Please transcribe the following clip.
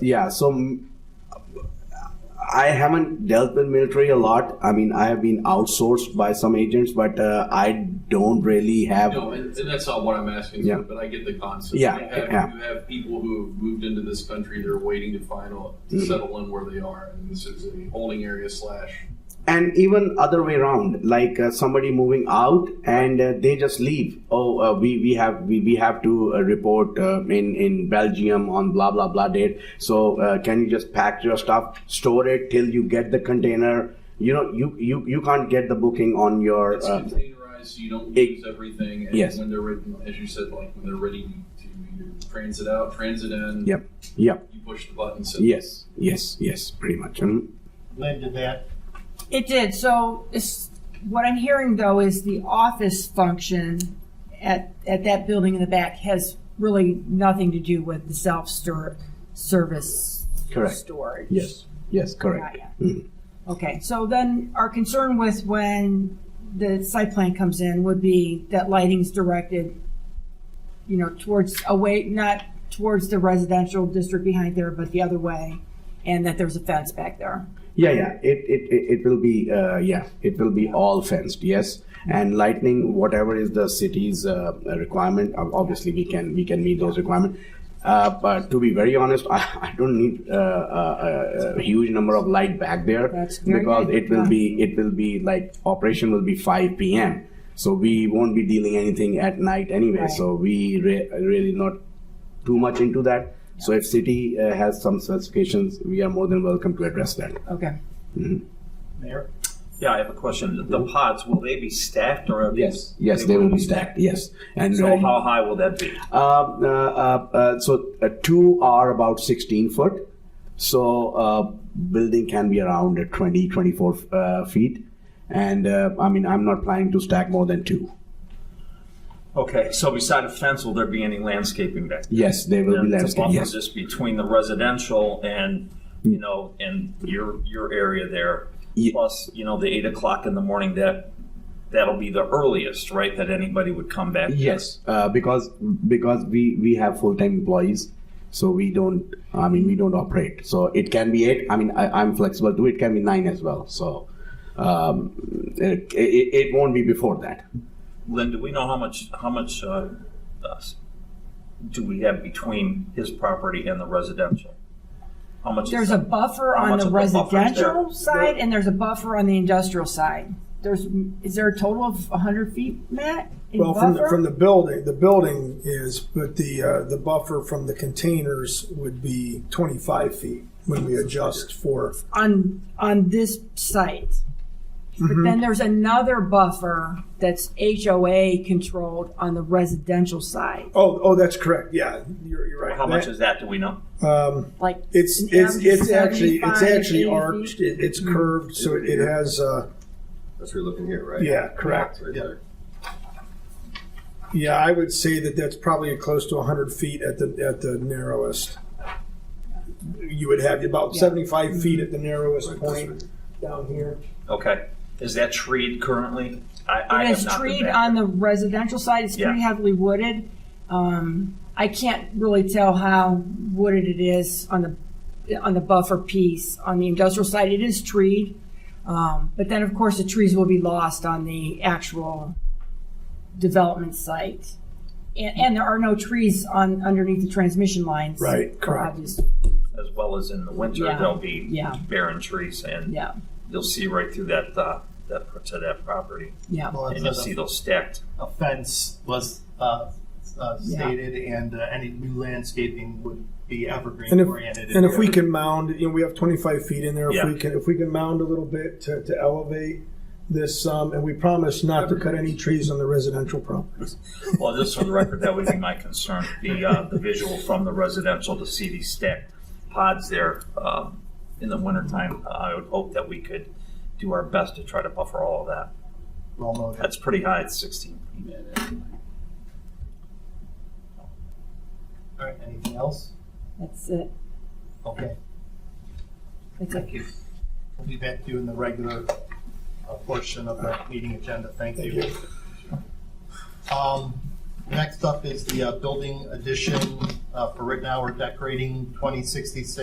yeah, so mm, I haven't dealt with military a lot. I mean, I have been outsourced by some agents, but uh, I don't really have. No, and, and that's not what I'm asking Yeah. for, but I get the concept. Yeah, You have, yeah. you have people who have moved into this country, they're waiting to final, to Mm. settle in where they are. And this is a holding area slash. and even other way around like uh, somebody moving out and uh, they just leave oh uh, we we have we, we have to uh, report uh, in in belgium on blah blah blah date so uh, can you just pack your stuff store it till you get the container you know you you, you can't get the booking on your It's uh, containerized, so you don't it- lose everything. And Yes. when they're ready, as you said, like when they're ready to either transit out, transit in, yep yep you push the button. So yes yes yes pretty much Mhm. Led to that. It did. So it's, what I'm hearing though is the office function at, at that building in the back has really nothing to do with the self-store, service Correct. storage. yes yes correct Got ya. Mhm. Okay, so then our concern with when the site plan comes in would be that lighting's directed, you know, towards, away, not towards the residential district behind there, but the other way, and that there's a fence back there. Yeah, yeah. It it, it, it will be uh, yeah. It will be all fenced. Yes, and lightning, whatever is the city's uh, requirement. ob- Obviously, we can we can meet those requirements. Uh, but to be very honest, I, I don't need uh, a, a huge number of light back there That's very because good, it will yeah. be it will be like operation will be 5 p.m. So we won't be dealing anything at night anyway. Right. So we re- really not too much into that. So if city uh, has some specifications, we are more than welcome to address that. Okay. Mayor? Yeah, I have a question. The pods, will they be stacked or? are Mm-hmm. Yes, yes, they will be stacked. Yes, and So uh, how high will that be? uh, uh, uh, so uh, two are about 16 foot. So uh, building can be around uh, 20, 24 uh, feet, and uh, I mean I'm not planning to stack more than two. Okay, so beside a fence, will there be any landscaping back? there? Yes, they will be To landscape. buffer Yes, Mm. This between the residential and, you know, and your, your area there. Ye- Plus, you know, the eight o'clock in the morning, that, that'll be the earliest, right, that anybody would come back? yes, uh, because because we we have full time employees. So we don't. I mean, we don't operate. So it can be eight. I mean, I, I'm flexible too. It can be nine as well. So um, it, it, it won't be before that. Lynn, do we know how much, how much, uh, us- do we have between his property and the residential? How much? is There's a that? buffer How on much the of a buffer is there? residential side, and there's a buffer on the industrial side. There's, is there a total of 100 feet, Matt? in Well, from the, buffer? from the building, the building is, but the, uh, the buffer from the containers would be twenty-five feet when we adjust for, on on this site. Mm-hmm. But then there's another buffer that's HOA controlled on the residential side. oh, oh, that's correct, yeah, you're, you're right. How much That- is that, do we know? Um, Like it's, an it's, average it's actually, it's 75, actually 80 arched, feet. Mm-hmm. it- it's curved, so it it has, uh, That's what you're looking here, right? yeah, correct. Right Yeah. there. Yeah, I would say that that's probably close to 100 feet at the, at the narrowest. You would have about 75 feet at the narrowest point down here. Okay. Is that treed currently? I, I It have is not been treed back on there. the residential side. It's pretty Yeah. heavily wooded. Um, I can't really tell how wooded it is on the on the buffer piece. On the industrial side, it is treed, um, but then of course the trees will be lost on the actual development site, and, and there are no trees on underneath the transmission lines. Right, for correct. obvious- As well as in the winter, Yeah. there'll be Yeah, barren trees and yeah, you'll see right through that, uh, that, to that property. yeah. Well, And it you'll says see those stacked. a a fence was uh, uh, Yeah. stated, and uh, any new landscaping would be evergreen And if- oriented. And if we can mound, you know, we have 25 feet in there. If Yeah. we can, if we can mound a little bit to, to elevate this, um, and we promise not to cut any trees on the residential properties. Well, just for the record, that would be my concern, the, uh, the visual from the residential to see these stacked pods there, um, in the wintertime. I would hope that we could do our best to try to buffer all of that. Well noted. That's pretty high, it's sixteen. All right, anything else? That's it. Okay, That's it. thank you. We'll be back to you in the regular uh, portion of the meeting agenda. Thank you. Um, Next up is the uh, building addition uh, for Rittenhour Decorating 2066